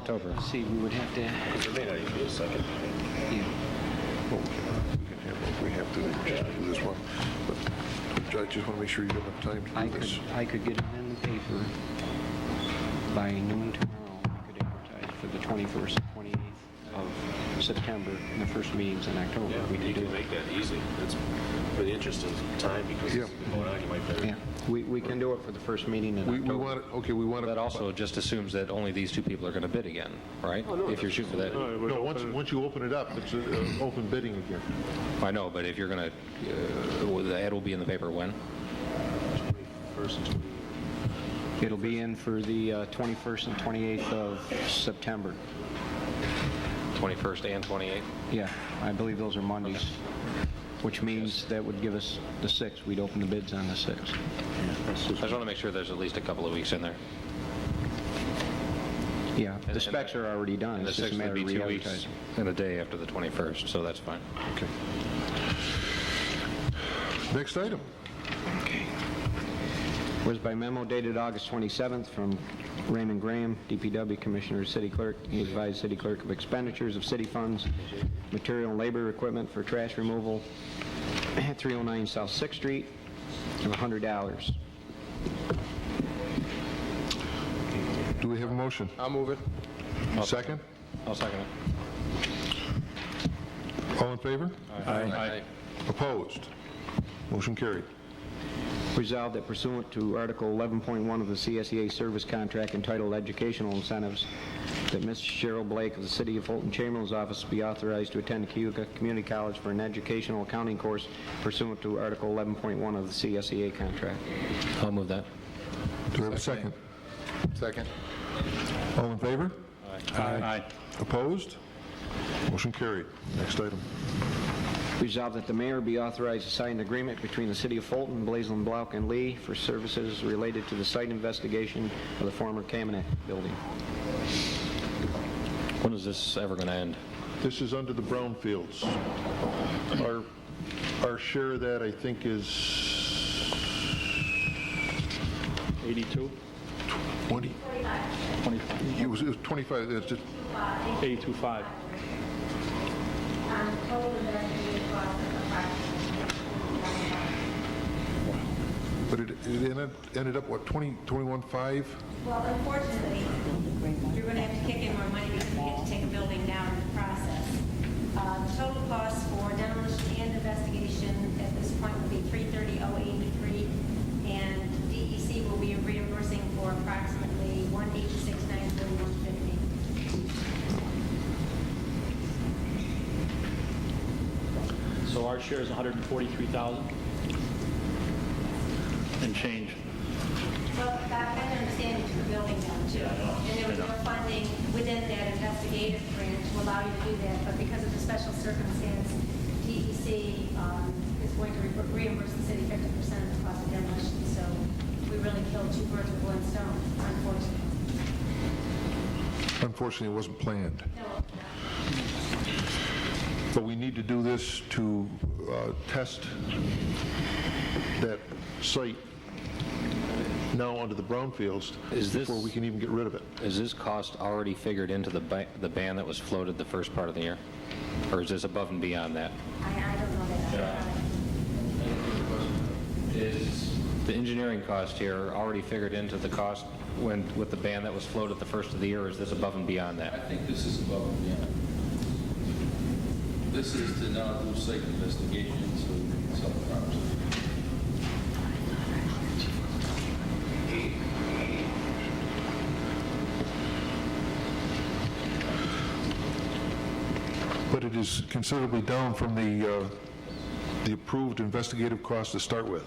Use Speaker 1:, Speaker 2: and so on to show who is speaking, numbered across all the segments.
Speaker 1: October.
Speaker 2: See, we would have to,
Speaker 3: There may not even be a second.
Speaker 2: yeah,
Speaker 4: Well, we can, we can handle it. We have to, we can just do this one. But I just want to make sure you have enough time
Speaker 2: I
Speaker 4: to do
Speaker 2: could,
Speaker 4: this.
Speaker 2: I could get it in the paper by noon tomorrow. We could advertise for the 21st, 28th of September, and the first meetings in October.
Speaker 3: Yeah,
Speaker 2: We could
Speaker 3: you
Speaker 2: do
Speaker 3: can
Speaker 2: it.
Speaker 3: make that easy. That's for the interest of time, because
Speaker 4: Yeah.
Speaker 3: if you vote on, you might better.
Speaker 2: Yeah, we, we can do it for the first meeting in
Speaker 4: We
Speaker 2: October.
Speaker 4: we want, to okay, we want to...
Speaker 1: That also just assumes that only these two people are going to bid again, right? If you're shooting for that,
Speaker 4: No, once, once you open it up, it's uh, open bidding again.
Speaker 1: I know, but if you're going to, the ad will be in the paper when?
Speaker 3: First and twenty.
Speaker 2: It'll be in for the uh, 21st and 28th of September.
Speaker 1: 21st and 28th?
Speaker 2: Yeah, I believe those are Mondays, which means that would give us the 6th. We'd open the bids on the 6th.
Speaker 1: I just want to make sure there's at least a couple of weeks in there.
Speaker 2: Yeah,
Speaker 1: and
Speaker 2: the
Speaker 1: the-
Speaker 2: specs are already done.
Speaker 1: And the
Speaker 2: It's just a
Speaker 1: 6th
Speaker 2: matter
Speaker 1: would be
Speaker 2: of
Speaker 1: two weeks
Speaker 2: re-advertising.
Speaker 1: and a day after the 21st, so that's fine.
Speaker 4: Okay. Next item.
Speaker 2: Was by memo dated August 27th from Raymond Graham, DPW Commissioner, City Clerk, he advised City Clerk of expenditures of city funds, material and labor equipment for trash removal at 309 South Sixth Street of $100.
Speaker 4: Do we have a motion?
Speaker 5: I'll move it.
Speaker 4: Second?
Speaker 1: I'll second it.
Speaker 4: All in favor?
Speaker 1: Aye.
Speaker 4: Opposed? Motion carried.
Speaker 2: Resolved that pursuant to Article 11.1 of the CSEA Service Contract entitled Educational Incentives, that Ms. Cheryl Blake of the City of Fulton Chamberlain's office be authorized to attend Keoka Community College for an educational accounting course pursuant to Article 11.1 of the CSEA contract.
Speaker 1: I'll move that.
Speaker 4: Do we have a second?
Speaker 5: Second.
Speaker 4: All in favor?
Speaker 1: Aye.
Speaker 4: Opposed? Motion carried. Next item.
Speaker 2: Resolved that the mayor be authorized to sign an agreement between the City of Fulton, Blaisland Blount, and Lee for services related to the site investigation of the former Kamenet building.
Speaker 1: When is this ever going to end?
Speaker 4: This is under the brownfields. Our, our share of that, I think, is...
Speaker 6: 82,
Speaker 4: 20?
Speaker 6: 25,
Speaker 4: It was it was 25, it's just,
Speaker 6: 825.
Speaker 4: but it it ended ended up, what, 20, 21.5?
Speaker 7: Well, unfortunately, you're going to have to kick in more money because we have to take a building down in the process. Uh, Total cost for demolition and investigation at this point would be 330,083, and DEC will be reimbursing for approximately 186,941.50.
Speaker 6: So our share is 143,000 and change.
Speaker 7: Well, back then, I understand you took a building down too. And there was no funding within that investigative grant to allow you to do that, but because of the special circumstance, DEC um, is going to re- reimburse the city 50% of the cost of demolition, so we really killed two birds with one stone, unfortunately.
Speaker 4: Unfortunately, it wasn't planned.
Speaker 7: No,
Speaker 4: But we need to do this to uh, test that site now under the brownfields
Speaker 1: Is this-
Speaker 4: before we can even get rid of it.
Speaker 1: Is this cost already figured into the ba- the ban that was floated the first part of the year? Or is this above and beyond that?
Speaker 7: I I don't know that.
Speaker 1: Is the engineering cost here already figured into the cost when, with the ban that was floated the first of the year, or is this above and beyond
Speaker 8: I
Speaker 1: that?
Speaker 8: think this is above and beyond. This is to not do site investigations of self-harms.
Speaker 4: But it is considerably down from the, uh, the approved investigative cost to start with.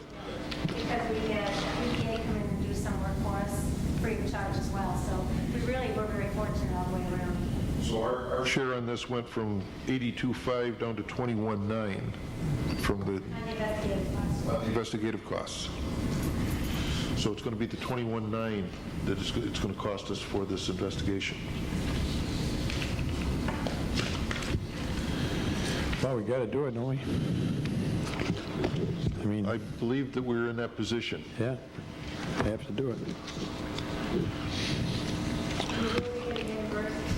Speaker 7: because we had EPA come in and do some work for us free of charge as well, so we really were very fortunate all the way around.
Speaker 4: So our our share on this went from 82.5 down to 21.9 from
Speaker 7: On the investigative cost.
Speaker 4: the investigative costs. So it's going to be the 21.9 that it's it's going to cost us for this investigation.
Speaker 5: Well, we got to do it, don't we? I mean,
Speaker 4: I believe that we're in that position.
Speaker 5: yeah, we have to do it.